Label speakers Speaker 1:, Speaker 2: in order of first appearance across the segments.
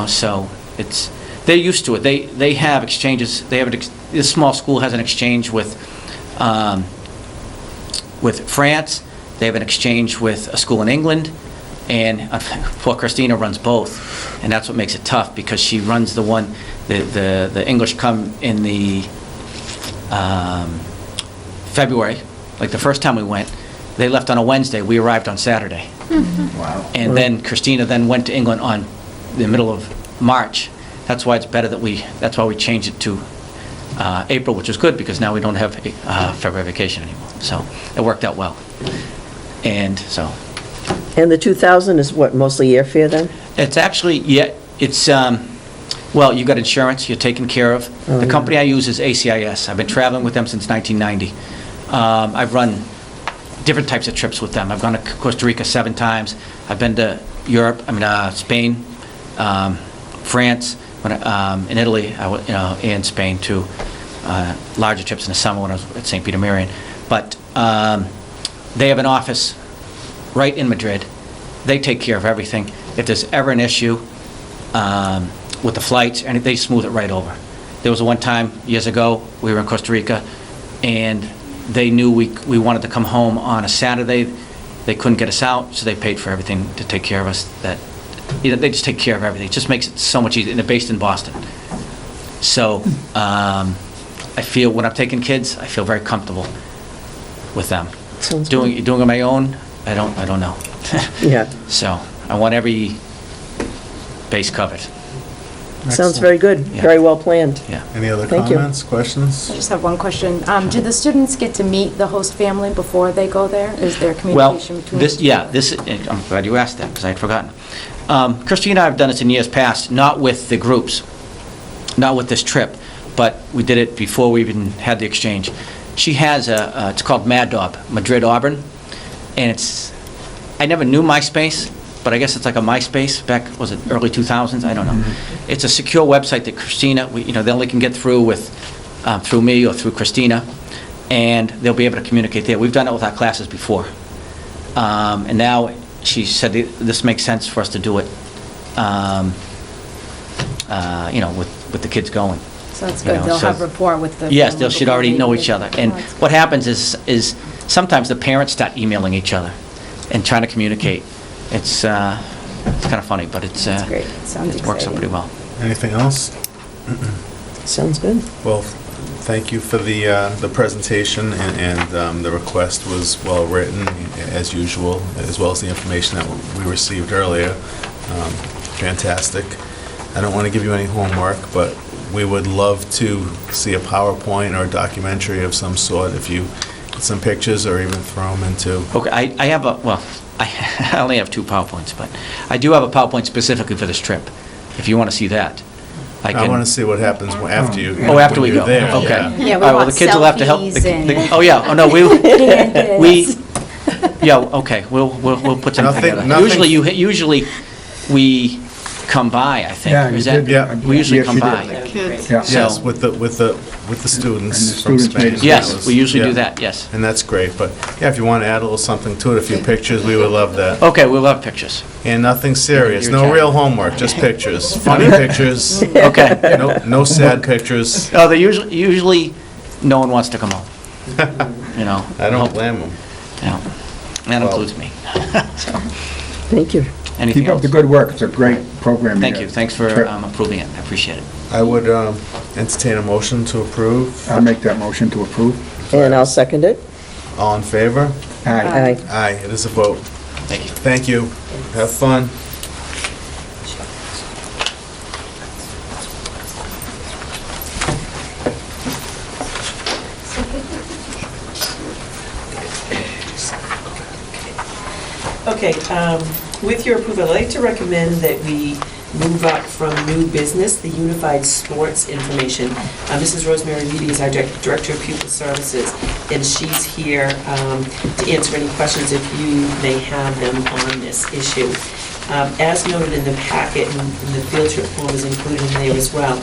Speaker 1: know, So it's, they're used to it. They, they have exchanges, they have, an ex- this small school has an exchange with, um, with France, they have an exchange with a school in England, and uh, poor Christina runs both, and that's what makes it tough, because she runs the one, the, the the English come in the um, February, like the first time we went, they left on a Wednesday, we arrived on Saturday.
Speaker 2: Wow.
Speaker 1: And then Christina then went to England on the middle of March. That's why it's better that we, that's why we changed it to uh, April, which is good, because now we don't have uh, February vacation anymore. So it worked out well. And so,
Speaker 3: And the 2,000 is what, mostly airfare then?
Speaker 1: it's actually, yeah, it's, um, well, you got insurance, you're taken care of.
Speaker 3: Oh,
Speaker 1: The
Speaker 3: yeah.
Speaker 1: company I use is ACIS. I've been traveling with them since 1990. Um, I've run different types of trips with them. I've gone to Costa Rica seven times. I've been to Europe, I mean, uh, Spain, um, France, when I- um, in Italy, I wa- you know, and Spain too. Uh, Larger trips in the summer when I was at St. Peter Marion. But um, they have an office right in Madrid. They take care of everything. If there's ever an issue um, with the flights, and they smooth it right over. There was one time, years ago, we were in Costa Rica, and they knew we, we wanted to come home on a Saturday. They couldn't get us out, so they paid for everything to take care of us. That, you know, they just take care of everything. It just makes it so much easier, and they're based in Boston. So um, I feel, when I'm taking kids, I feel very comfortable with them.
Speaker 3: Sounds
Speaker 1: Doing, doing it on my own, I don't, I don't know.
Speaker 3: Yeah.
Speaker 1: So I want every base covered,
Speaker 3: Sounds very good,
Speaker 1: Yeah.
Speaker 3: very well planned.
Speaker 1: yeah.
Speaker 2: Any other
Speaker 3: Thank you.
Speaker 2: comments,
Speaker 4: I
Speaker 2: questions?
Speaker 4: just have one question. Um, Do the students get to meet the host family before they go there? Is there
Speaker 1: Well,
Speaker 4: communication between?
Speaker 1: this, yeah, this, I'm glad you asked that, because I had forgotten. Um, Christina and I have done this in years past, not with the groups, not with this trip, but we did it before we even had the exchange. She has a, uh, it's called Mad Dog, Madrid Auburn, and it's, I never knew MySpace, but I guess it's like a MySpace back, was it early 2000s? I don't know.
Speaker 4: Mm-hmm.
Speaker 1: It's a secure website that Christina, we- you know, they only can get through with, uh, through me or through Christina, and they'll be able to communicate there. We've done it with our classes before. Um, And now, she said, this makes sense for us to do it, um, uh, you know, with, with the kids going.
Speaker 4: So that's
Speaker 1: you
Speaker 4: good.
Speaker 1: know,
Speaker 4: They'll
Speaker 1: so-
Speaker 4: have rapport with the.
Speaker 1: Yes,
Speaker 4: family
Speaker 1: they should
Speaker 4: before
Speaker 1: already
Speaker 4: they
Speaker 1: know
Speaker 4: even-
Speaker 1: each other. And
Speaker 4: Oh, that's
Speaker 1: what
Speaker 4: good.
Speaker 1: happens is, is sometimes the parents start emailing each other and trying to communicate. It's, uh, it's kind of funny, but it's, uh,
Speaker 4: That's great. Sounds
Speaker 1: it works out
Speaker 4: exciting.
Speaker 1: pretty well.
Speaker 2: Anything else?
Speaker 3: Sounds good.
Speaker 2: Well, thank you for the, uh, the presentation, and, and um, the request was well-written, as usual, as well as the information that we received earlier. Um, Fantastic. I don't want to give you any homework, but we would love to see a PowerPoint or a documentary of some sort, if you, some pictures, or even throw them into,
Speaker 1: Okay, I, I have a, well, I I only have two PowerPoints, but I do have a PowerPoint specifically for this trip, if you want to see that.
Speaker 2: I
Speaker 1: can-
Speaker 2: want to see what happens after you.
Speaker 1: Oh, after we
Speaker 2: when
Speaker 1: go,
Speaker 2: you're
Speaker 1: okay.
Speaker 2: there, yeah.
Speaker 4: Yeah,
Speaker 1: All
Speaker 4: we
Speaker 1: right, well,
Speaker 4: want
Speaker 1: the kids will have to help. the-
Speaker 4: selfies
Speaker 1: the-
Speaker 4: and-
Speaker 1: Oh, yeah, oh, no, we, we,
Speaker 4: Yes.
Speaker 1: yeah, okay, we'll, we'll, we'll put something
Speaker 2: Nothing-
Speaker 1: together.
Speaker 2: nothing-
Speaker 1: Usually, you, usually, we come by, I think.
Speaker 5: Yeah,
Speaker 1: Is
Speaker 5: you
Speaker 1: that-
Speaker 5: did.
Speaker 2: Yeah.
Speaker 1: We usually
Speaker 5: Yes,
Speaker 1: come
Speaker 5: you did.
Speaker 1: by.
Speaker 5: Yeah.
Speaker 1: So-
Speaker 2: Yes, with the, with the, with the
Speaker 5: And the
Speaker 2: students from
Speaker 5: students made
Speaker 2: Spain.
Speaker 5: it.
Speaker 1: Yes, we usually do
Speaker 2: Yeah.
Speaker 1: that, yes.
Speaker 2: And that's great, but yeah, if you want to add a little something to it, a few pictures, we would love that.
Speaker 1: Okay, we'll have pictures.
Speaker 2: And nothing serious,
Speaker 1: Your
Speaker 2: no
Speaker 1: child.
Speaker 2: real homework, just pictures, funny pictures,
Speaker 1: Okay.
Speaker 2: no, no sad pictures.
Speaker 1: Oh, they usually, usually, no one wants to come home, you know.
Speaker 2: I don't blame them.
Speaker 1: Yeah. That
Speaker 2: Well-
Speaker 1: includes me.
Speaker 3: Thank you.
Speaker 1: Anything
Speaker 5: Keep up
Speaker 1: else?
Speaker 5: the good work, it's a great program.
Speaker 1: Thank
Speaker 5: here.
Speaker 1: you, thanks for
Speaker 5: Sure.
Speaker 1: um, approving it, I appreciate it.
Speaker 2: I would um, entertain a motion to approve.
Speaker 5: I'll make that motion to approve.
Speaker 3: And I'll second it.
Speaker 2: All in favor?
Speaker 6: Um,
Speaker 5: Aye.
Speaker 3: Aye.
Speaker 2: Aye, it is a vote.
Speaker 1: Thank you.
Speaker 2: Thank you. Have fun.
Speaker 6: Okay, um, with your approval, I'd like to recommend that we move up from new business, the unified sports information. Uh, Mrs. Rosemary Meady is our dir- Director of Pupil Services, and she's here um, to answer any questions if you may have them on this issue. Um, As noted in the packet, and and the field trip form is included in there as well,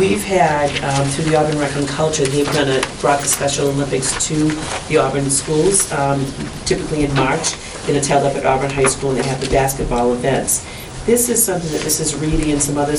Speaker 6: we've had, um, through the Auburn Rec and Culture, they've done a, brought the Special Olympics to the Auburn schools, um, typically in March, and it's held up at Auburn High School, and they have the basketball events. This is something that Mrs. Reedy and some others